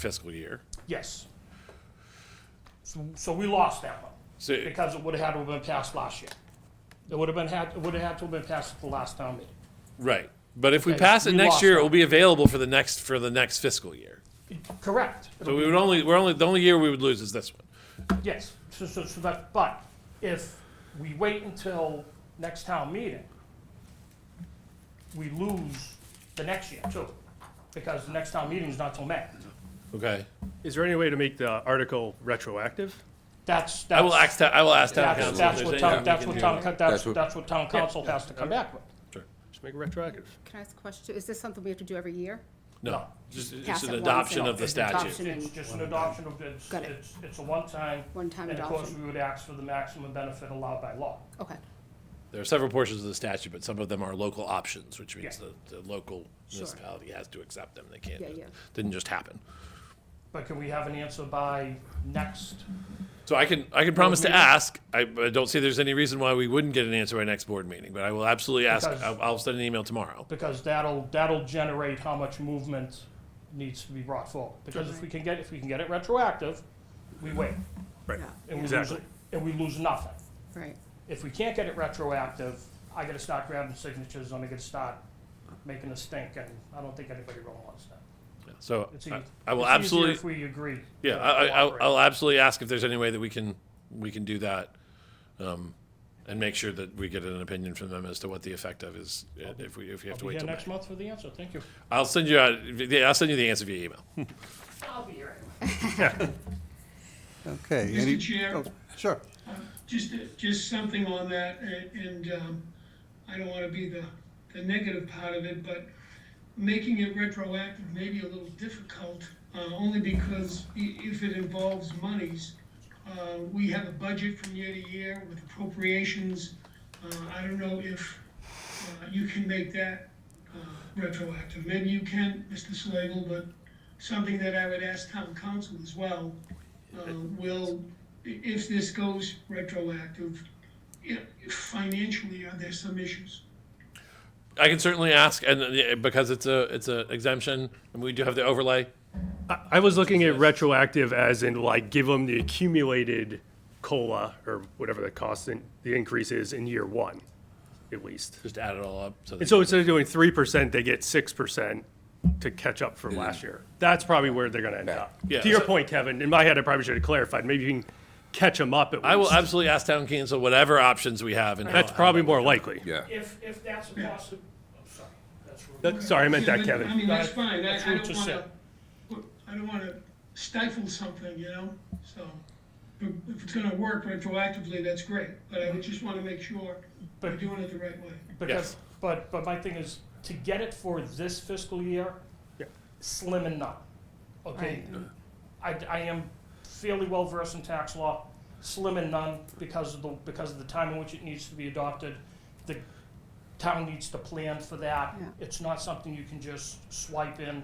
fiscal year. Yes. So, so we lost that one So, because it would have had to have been passed last year. It would have been had, it would have had to have been passed at the last town meeting. right. But if we Okay, pass it we next lost year, that. it will be available for the next, for the next fiscal year. Correct. So we would only, we're only, the only year we would lose is this one. Yes, so, so, so that, but if we wait until next town meeting, we lose the next year too, because the next town meeting is not till May. Okay. Is there any way to make the article retroactive? That's, that's. I will ask, ta- I will ask town That's, council. that's if what there's town, anything we that's can what do. town, co- that's, That's what- that's what town council has to come back with. Sure. Just make it retroactive. Can I ask a question? Is this something we have to do every year? No, No. just, it's Pass it an once adoption and- of the It's an adoption. statute. It's just an adoption of, it's, Got it. it's, it's a one-time. One-time And of course, adoption. we would ask for the maximum benefit allowed by law. Okay. There are several portions of the statute, but some of them are local options, which means Yeah. the, the local Sure. municipality has to accept them. They can't, Yeah, yeah. didn't just happen. But can we have an answer by next? So I can, I can promise to meeting? ask. I, I don't see there's any reason why we wouldn't get an answer by next board meeting, but I will absolutely ask. Because- I'll, I'll send an email tomorrow. Because that'll, that'll generate how much movement needs to be brought forward. Because if Sure. we can get, if we can get it retroactive, we wait. Right. Yeah, and we lose- Exactly. And we lose nothing. Right. If we can't get it retroactive, I gotta start grabbing signatures, and I gotta start making a stink, and I don't think anybody really wants that. So It's I, eas- I will it's easier absolutely. If we agree. Yeah, to I, I, I'll- cooperate. I'll absolutely ask if there's any way that we can, we can do that. um, And make sure that we get an opinion from them as to what the effect of is, uh, if we, if you have to I'll be wait here till May. next month for the answer, thank you. I'll send you, out- yeah, I'll send you the answer via email. I'll be here anyway. Okay. Mr. any- Chair? oh, Sure. Just, just something on that, a- and um, I don't want to be the, the negative part of it, but making it retroactive may be a little difficult, uh, only because i- if it involves monies, uh, we have a budget from year to year with appropriations. Uh, I don't know if uh, you can make that uh, retroactive. Maybe you can, Mr. Slagle, but something that I would ask town council as well, uh, will, i- if this goes retroactive, i- financially, are there some issues? I can certainly ask, and uh, because it's a, it's a exemption, and we do have the overlay. I, I was looking at retroactive as in like give them the accumulated COLA or whatever the cost in, the increase is in year one, at least. Just add it all up. So And that- so instead of doing three percent, they get six percent to catch up from last year. That's probably where they're gonna end up. Yeah. To your So- point, Kevin, in my head, I probably should have clarified. Maybe you can catch them up at least. I will absolutely ask town council whatever options we have. and how- That's probably more likely. Yeah. If, if that's a possi, I'm sorry, that's rude. That- Sorry, I meant that, Yeah, but, I Kevin. mean, that's That- fine, I I that's what don't you want to, I don't want to stifle something, you know, so. If if it's gonna work retroactively, that's great, but I would just want to make sure we're But- doing it the right way. Because, but, but my thing is, to get it for this fiscal year, Yeah. slim and none, okay? I, I am fairly well versed in tax law, slim and none, because of the, because of the time in which it needs to be adopted. The town needs to plan for that. Yeah. It's not something you can just swipe in.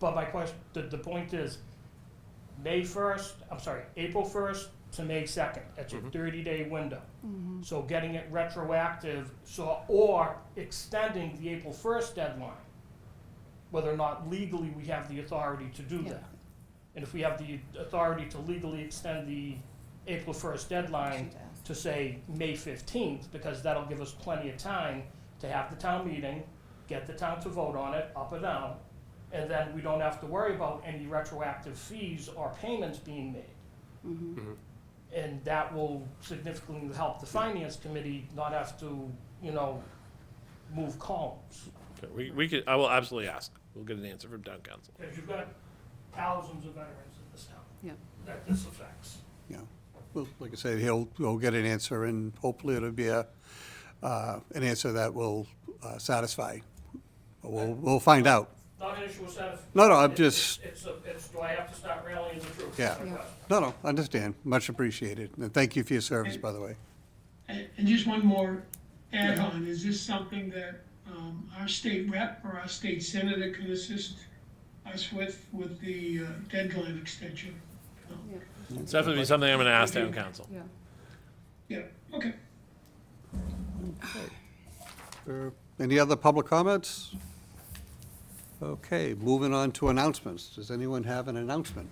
But my question, the, the point is, May first, I'm sorry, April first to May second, that's a thirty-day window. So getting it retroactive, so, or extending the April first deadline, whether or not legally we have the authority to do Yeah. that. And if we have the authority to legally extend the April first deadline Should ask. to say May fifteenth, because that'll give us plenty of time to have the town meeting, get the town to vote on it, up or down, and then we don't have to worry about any retroactive fees or payments being made. And that will significantly help the finance committee not have to, you know, move columns. Okay, We, we could, I will absolutely ask. We'll get an answer from town council. Because you've got thousands of veterans in this town Yeah. that this affects. Yeah. Well, like I said, he'll, he'll get an answer and hopefully it'll be a, uh, an answer that will uh, satisfy. We'll, we'll find out. Not an issue with that. No, no, I'm just, It's, a- it's, do I have to start rallying the troops? yeah. No, no, understand. Much appreciated. And thank you for your service, by the way. And and just one more add-on, is this something that um, our state rep or our state senator can assist us with, with the uh, deadline extension? It's definitely something I'm going to ask town council. Yeah. Yeah, okay. Uh, Any other public comments? Okay, moving on to announcements. Does anyone have an announcement?